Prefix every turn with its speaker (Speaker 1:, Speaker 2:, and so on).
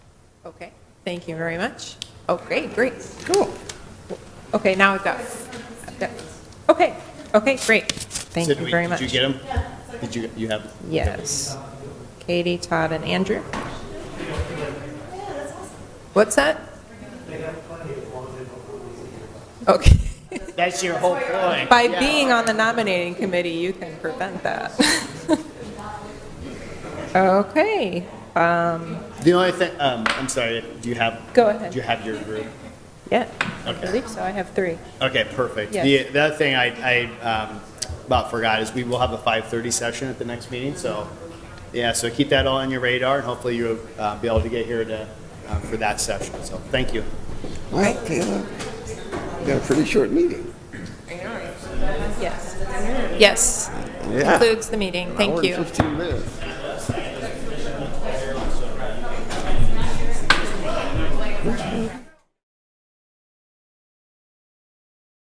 Speaker 1: Okay, thank you very much. Okay, great, cool. Okay, now I've got, I've got- okay, okay, great. Thank
Speaker 2: Did
Speaker 1: you
Speaker 2: we-
Speaker 1: very much.
Speaker 2: Did you get them? Did you, you have,
Speaker 1: Yes. Katie, Todd, and Andrew. What's that? Okay.
Speaker 2: that's your whole point.
Speaker 1: By being on the nominating committee, you can prevent that. Okay,
Speaker 2: The only thing, um, I'm sorry, do you have?
Speaker 1: Go ahead.
Speaker 2: Do you have your group?
Speaker 1: yeah, I
Speaker 2: Okay.
Speaker 1: believe so, I have three.
Speaker 2: Okay, perfect.
Speaker 1: Yes.
Speaker 2: The, the other thing I, I, um, about forgot is we will have a five-thirty session at the next meeting, so, yeah, so keep that all on your radar, and hopefully you'll, uh, be able to get here to, uh, for that session, so, thank you.
Speaker 3: All right, Taylor. We got a pretty short meeting.
Speaker 1: Yes. Yes,
Speaker 3: Yeah.
Speaker 1: concludes the meeting,
Speaker 3: Hour
Speaker 1: thank
Speaker 3: and
Speaker 1: you.
Speaker 3: Fifteen minutes.